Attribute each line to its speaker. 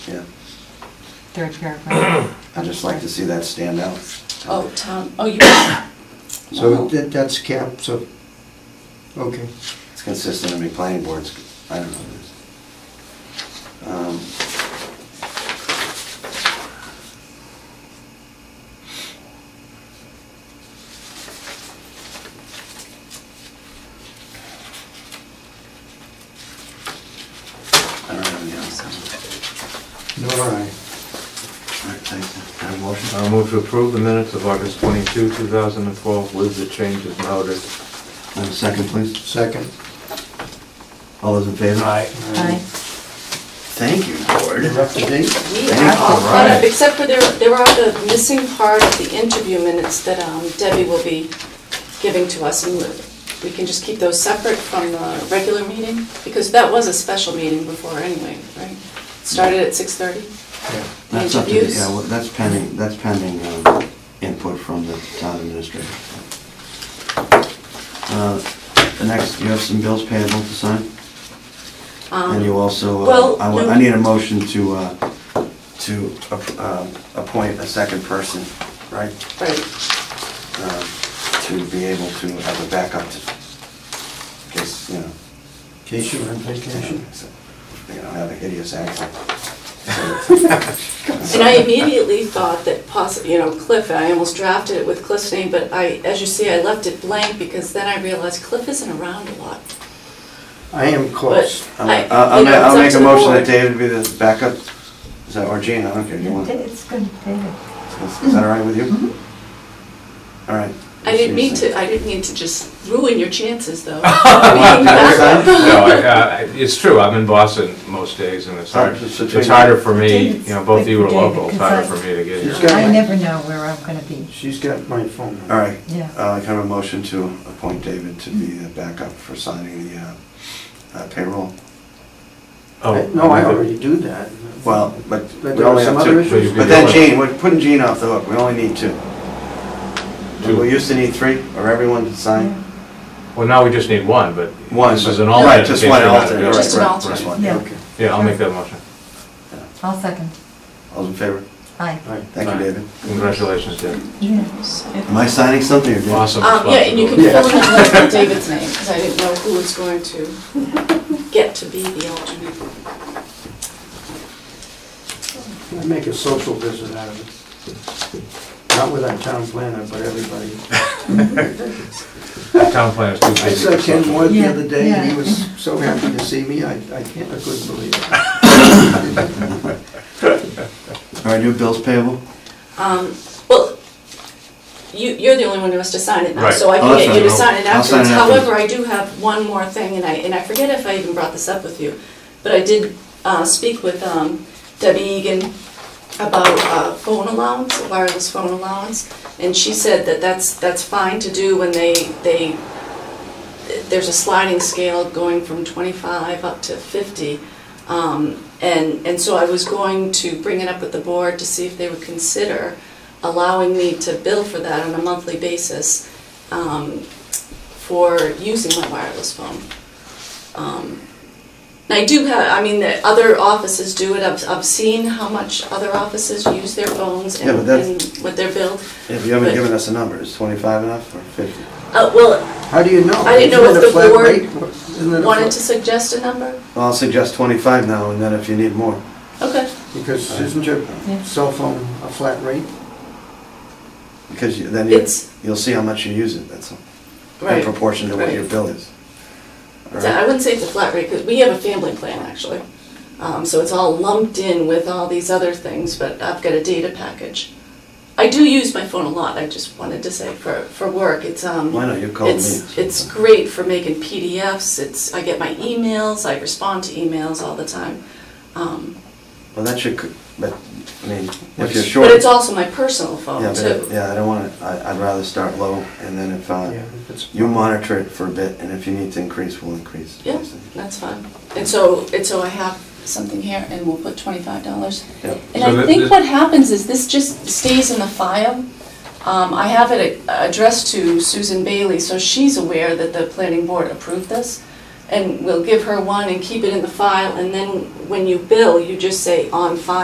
Speaker 1: Yeah,
Speaker 2: Third paragraph.
Speaker 1: I'd just like to see that stand out.
Speaker 3: Oh, town, oh, you,
Speaker 4: So
Speaker 3: Oh.
Speaker 4: that, that's capped, so, okay.
Speaker 1: It's consistent, I mean, planning boards, I don't know. Um, I don't have any else.
Speaker 4: Nor I.
Speaker 1: All right, thanks. Can I have a motion?
Speaker 5: I'll move to approve the minutes of August 22, 2012 with the changes noted.
Speaker 1: Have a second, please.
Speaker 4: Second.
Speaker 1: All those in favor? Aye.
Speaker 2: Aye.
Speaker 1: Thank you, board.
Speaker 4: You're up to date?
Speaker 3: we
Speaker 1: Thank
Speaker 3: are all
Speaker 1: you.
Speaker 3: caught up, except for there, there are the missing part of the interview minutes that um, Debbie will be giving to us, and we can just keep those separate from the regular meeting, because that was a special meeting before anyway, right? Started at 6:30?
Speaker 4: Yeah.
Speaker 1: That's up to, the-
Speaker 3: Interviews?
Speaker 1: yeah, well, that's pending, that's pending um, input from the town administrator. Uh, Next, you have some bills payable to sign,
Speaker 3: Um,
Speaker 1: and you also, uh,
Speaker 3: well,
Speaker 1: I wa-
Speaker 3: no.
Speaker 1: I need a motion to, uh, to ap- um, appoint a second person, right?
Speaker 3: Right,
Speaker 1: Um, To be able to have a backup to, in case, you know,
Speaker 4: In case you were on vacation.
Speaker 1: they don't have a hideous accent.
Speaker 3: and I immediately thought that possi, you know, Cliff, I almost drafted it with Cliff's name, but I, as you see, I left it blank, because then I realized Cliff isn't around a lot.
Speaker 4: I am close.
Speaker 3: But
Speaker 1: I'll,
Speaker 3: I-
Speaker 1: I'll- I'll
Speaker 3: you
Speaker 1: ma-
Speaker 3: know, it's
Speaker 1: I'll
Speaker 3: up
Speaker 1: make
Speaker 3: to
Speaker 1: a
Speaker 3: the
Speaker 1: motion that
Speaker 3: board.
Speaker 1: David be the backup, is that, or Gene, I don't care, you want, is
Speaker 2: It's good, David.
Speaker 1: is that all right with you? All right.
Speaker 3: Mm-hmm. I didn't mean to, I didn't mean to just ruin your chances, though. Being back up.
Speaker 5: No, I- I- it's true, I'm in Boston most days, and it's hard,
Speaker 1: Alright, just between-
Speaker 5: it's harder for me,
Speaker 2: David's
Speaker 5: you know, both of you are
Speaker 2: with David,
Speaker 5: local, it's harder for
Speaker 2: because
Speaker 5: me to get
Speaker 4: She's
Speaker 5: here.
Speaker 4: got
Speaker 2: I
Speaker 4: my-
Speaker 2: never know where I'm gonna be.
Speaker 4: She's got my phone
Speaker 1: All
Speaker 4: number.
Speaker 1: right,
Speaker 2: Yeah.
Speaker 1: uh, can I have a motion to appoint David to be the backup for signing the uh, uh, payroll?
Speaker 5: Oh,
Speaker 4: No, I already do that.
Speaker 1: Well, but
Speaker 4: But
Speaker 1: we
Speaker 4: there are
Speaker 1: only
Speaker 4: some
Speaker 1: have
Speaker 4: other
Speaker 1: two.
Speaker 4: issues.
Speaker 1: But then Gene, we're putting Gene off the hook, we only need two. We used to need three, or everyone to sign?
Speaker 5: Well, now we just need one, but
Speaker 1: One,
Speaker 5: this is
Speaker 1: but-
Speaker 5: an
Speaker 1: right,
Speaker 5: alternate. in
Speaker 1: just
Speaker 5: case
Speaker 1: one
Speaker 5: you're not
Speaker 1: alternate,
Speaker 5: doing it.
Speaker 3: Just an
Speaker 1: right, right,
Speaker 3: alternate.
Speaker 1: just one, yeah.
Speaker 2: Yeah.
Speaker 4: Okay.
Speaker 5: Yeah, I'll make that motion.
Speaker 2: I'll second.
Speaker 1: All's in favor?
Speaker 2: Aye.
Speaker 4: All right.
Speaker 1: Thank you,
Speaker 5: Aye.
Speaker 1: David.
Speaker 5: Congratulations, Dave.
Speaker 2: Yeah.
Speaker 1: Am I signing something or David?
Speaker 5: Awesome
Speaker 3: Um, yeah, and you can
Speaker 5: responsibility.
Speaker 3: fill in the blank with David's name, because I didn't know who was going to get to be the alternate.
Speaker 4: I make a social visit out of it. Not with our town planner, but everybody.
Speaker 5: Town plan is too busy.
Speaker 4: I saw Ken Moore the
Speaker 2: Yeah,
Speaker 4: other day, and he
Speaker 2: yeah.
Speaker 4: was so happy to see me, I, I can't, I couldn't believe it.
Speaker 1: All right, new bills payable?
Speaker 3: Um, well, you, you're the only one who has to sign it now,
Speaker 5: Right.
Speaker 3: so I
Speaker 1: Oh,
Speaker 3: can
Speaker 1: that's
Speaker 3: get you to
Speaker 1: fine.
Speaker 3: sign it
Speaker 1: I'll sign
Speaker 3: afterwards.
Speaker 1: it afterwards.
Speaker 3: However, I do have one more thing, and I, and I forget if I even brought this up with you, but I did, uh, speak with, um, Debbie Egan about, uh, phone allowance, wireless phone allowance, and she said that that's, that's fine to do when they, they, there's a sliding scale going from twenty-five up to fifty, um, And, and so I was going to bring it up with the board to see if they would consider allowing me to bill for that on a monthly basis um, for using my wireless phone. Um, And I do have, I mean, the other offices do it, I've, I've seen how much other offices use their phones and
Speaker 1: Yeah, but that's-
Speaker 3: and what they're billed.
Speaker 1: If you haven't given us a number, is 25 enough or 50?
Speaker 3: Uh, Well,
Speaker 4: How do you know?
Speaker 3: I didn't know if
Speaker 4: Isn't it a
Speaker 3: the
Speaker 4: flat
Speaker 3: board
Speaker 4: rate? Isn't it a
Speaker 3: wanted to
Speaker 4: flat-
Speaker 3: suggest a number?
Speaker 1: Well, I'll suggest 25 now, and then if you need more.
Speaker 3: Okay,
Speaker 4: Because isn't your
Speaker 2: Yeah.
Speaker 4: cell phone a flat rate?
Speaker 1: Because you- then you-
Speaker 3: it's,
Speaker 1: you'll see how much you use it, that's all. In
Speaker 3: right.
Speaker 1: proportion to what your
Speaker 3: right.
Speaker 1: bill is. All
Speaker 3: So I
Speaker 1: right?
Speaker 3: wouldn't say it's a flat rate, because we have a family plan, actually. Um, So it's all lumped in with all these other things, but I've got a data package. I do use my phone a lot, I just wanted to say, for, for work, it's, um...
Speaker 1: Why not, you called me.
Speaker 3: It's,
Speaker 1: so-
Speaker 3: it's great for making PDFs, it's, I get my emails, I respond to emails all the time. Um,
Speaker 1: Well, that should, c- but, I mean, if
Speaker 4: It's-
Speaker 1: you're short.
Speaker 3: But it's also my personal
Speaker 1: Yeah,
Speaker 3: phone,
Speaker 1: but it-
Speaker 3: too.
Speaker 1: yeah, I don't want to, I'd rather start low, and then if, uh,
Speaker 4: Yeah, if it's-
Speaker 1: you monitor it for a bit, and if you need to increase, we'll increase.
Speaker 3: Yeah, that's fine. And so, and so I have something here, and we'll put twenty-five dollars
Speaker 1: Yep.
Speaker 3: And
Speaker 5: So
Speaker 3: I
Speaker 5: that-
Speaker 3: think
Speaker 5: that-
Speaker 3: what happens is this just stays in the file. Um, I have it a- addressed to Susan Bailey, so she's aware that the planning board approved this. And we'll give her one and keep it in the file, and then when you bill, you just say on file.